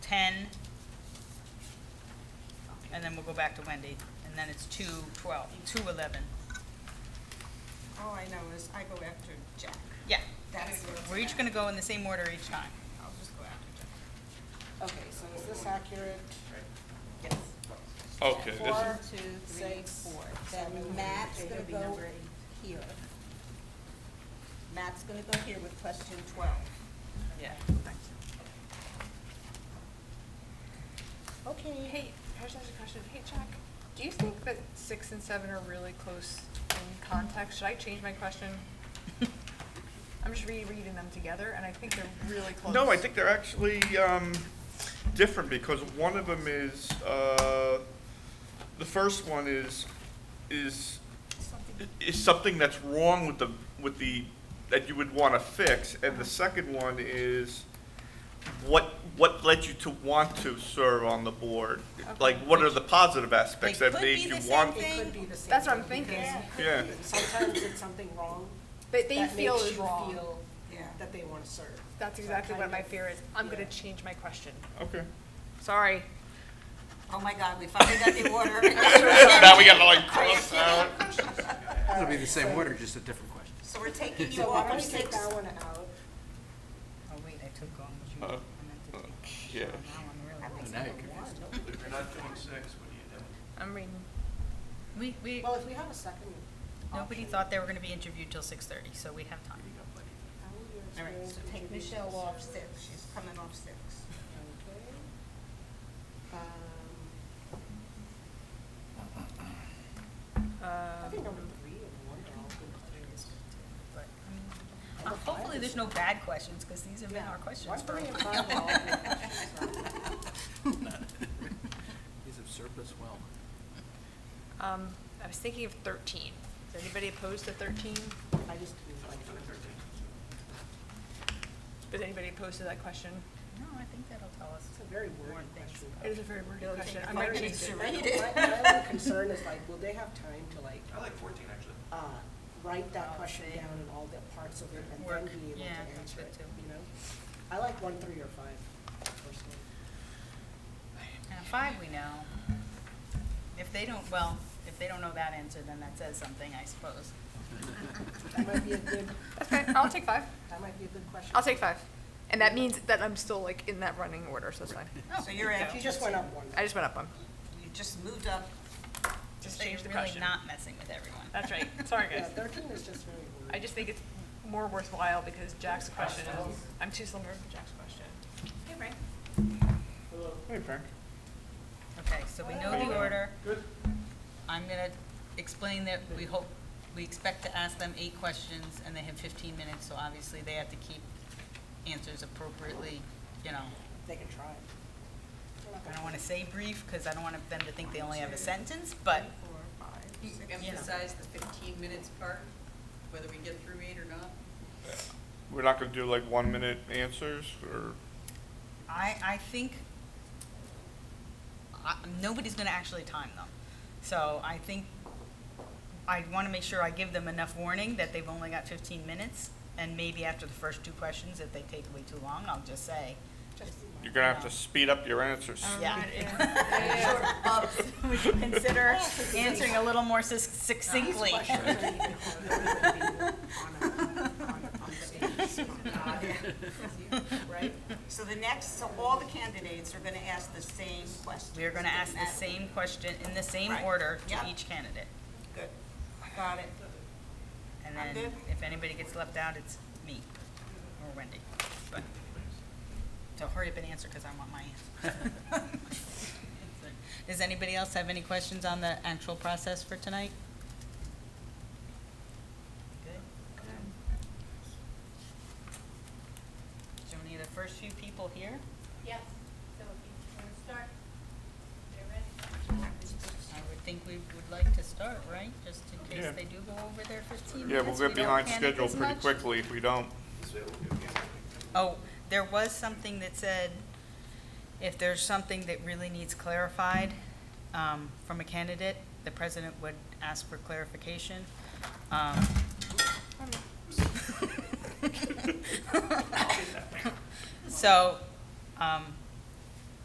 ten, and then we'll go back to Wendy, and then it's two twelve, two eleven. All I know is I go after Jack. Yeah, That's what we're each gonna go in the same order each time. I'll just go after Jack. Okay, so is this accurate? Yes. Okay, this Four, is, two, three, four. Then Matt's gonna go here. Matt's gonna go here with question twelve. Yeah. Okay. Hey, I just asked a question. Hey, Jack, do you think that six and seven are really close in context? Should I change my question? Oh, I'm just rereading them together, and I think they're really close. no, I think they're actually, um, different, because one of them is, uh, the first one is, is, is something that's wrong with the, with the, that you would wanna fix, and the second one is what, what led you to want to serve on the board? Like, what are the positive aspects They that could made be you the same want? thing. It could be the same. That's what I'm thing, because thinking. it could Yeah. be. Sometimes it's something wrong That they that feel makes is you wrong. feel Yeah. that they want to serve. That's So I exactly what kind my of- fear is. I'm gonna yeah. change my question. Okay. Sorry. Oh my God, we finally got the order. Now we gotta like cross out. It'll be the same order, just a different question. So we're taking you So why off don't of we take six. that one out? Oh, wait, I took on what you, Uh, I meant to uh, take. yeah. So Now I'm really. And now you're confused. If you're not doing six, what are you doing? I'm reading. We, we, Well, if we have a second. nobody thought they were gonna be interviewed till six thirty, so we have time. All right, so take Michelle off six. She's coming off six. I think Um, number three and one are all good questions. But, I mean, uh, hopefully there's no bad questions, because these have been our questions Why for a three and while. five are all good questions? He's observed us well. um, I was thinking of thirteen. Is anybody opposed to thirteen? I just feel like. Is anybody opposed to that question? No, I think that'll tell us. It's a very wordy Warrant things. question. It is a very weird question. I My, might change it. my only concern is like, will they have time to like, I like fourteen, actually. uh, write Oh, that question see. down and all the parts of it and then Work. be able to Yeah, that's answer good it, too. you know? I like one, three, or five personally. Now, five we know. If they don't, well, if they don't know that answer, then that says something, I suppose. That might be a good, That's okay. I'll take five. that might be a good question. I'll take five. And that means that I'm still like in that running order, so it's fine. Oh, So you're at, You just went up one. I just went up one. you just moved up. Just So you're change the really question. not messing with everyone. That's right. Sorry, Yeah, guys. thirteen is just very wordy. I just think it's more worthwhile because Jack's question is, I'm too similar to Jack's question. Hey, Frank. Hey, Frank. Okay, so we know the order. Good. I'm gonna explain that we hope, we expect to ask them eight questions, and they have fifteen minutes, so obviously they have to keep answers appropriately, you know. They can try. I don't wanna say brief, because I don't want them to think they only have a sentence, but Four, five, You six. emphasize the fifteen minutes part, whether we get through eight or not? We're not gonna do like one minute answers or? I, I think, I, nobody's gonna actually time them. So I think, I wanna make sure I give them enough warning that they've only got fifteen minutes, and maybe after the first two questions, if they take way too long, I'll just say, You're gonna have to speed up your answers. yeah. Would you consider answering a little more sus- succinctly? Right? So the next, so all the candidates are going to ask the same question. We're gonna ask the same question in the same Right. order to Yep. each candidate. Good. Got it. And I'm then, good. if anybody gets left out, it's me or Wendy. But- So hurry up and answer, because I want my answer. Does anybody else have any questions on the actual process for tonight? Good? So we need the first few people here. Yes, so if you want to start, get ready. I would think we would like to start, right? Just in case Yeah. they do go over their 15 minutes. Yeah, we'll we get don't behind panic schedule as pretty much. quickly if we don't. Oh, there was something that said, if there's something that really needs clarified um, from a candidate, the president would ask for clarification. Um, So, um,